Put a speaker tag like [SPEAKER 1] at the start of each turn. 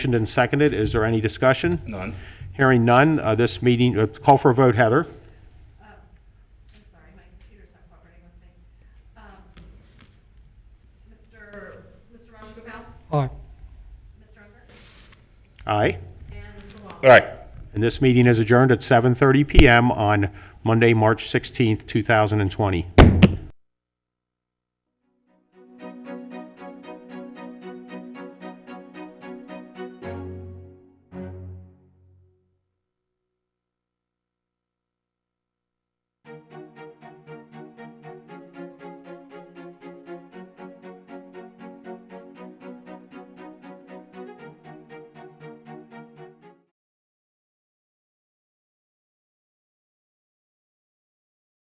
[SPEAKER 1] Motioned and seconded, is there any discussion?
[SPEAKER 2] None.
[SPEAKER 1] Hearing none, uh, this meeting, uh, call for a vote, Heather.
[SPEAKER 3] I'm sorry, my computer's not cooperating with me. Um, Mr. Mr. Raj Gopal,
[SPEAKER 4] Aye.
[SPEAKER 3] Mr. Unger,
[SPEAKER 1] Aye.
[SPEAKER 3] and Mr. Long.
[SPEAKER 2] All right.
[SPEAKER 1] And this meeting is adjourned at 7:30 PM on Monday, March 16th, 2020.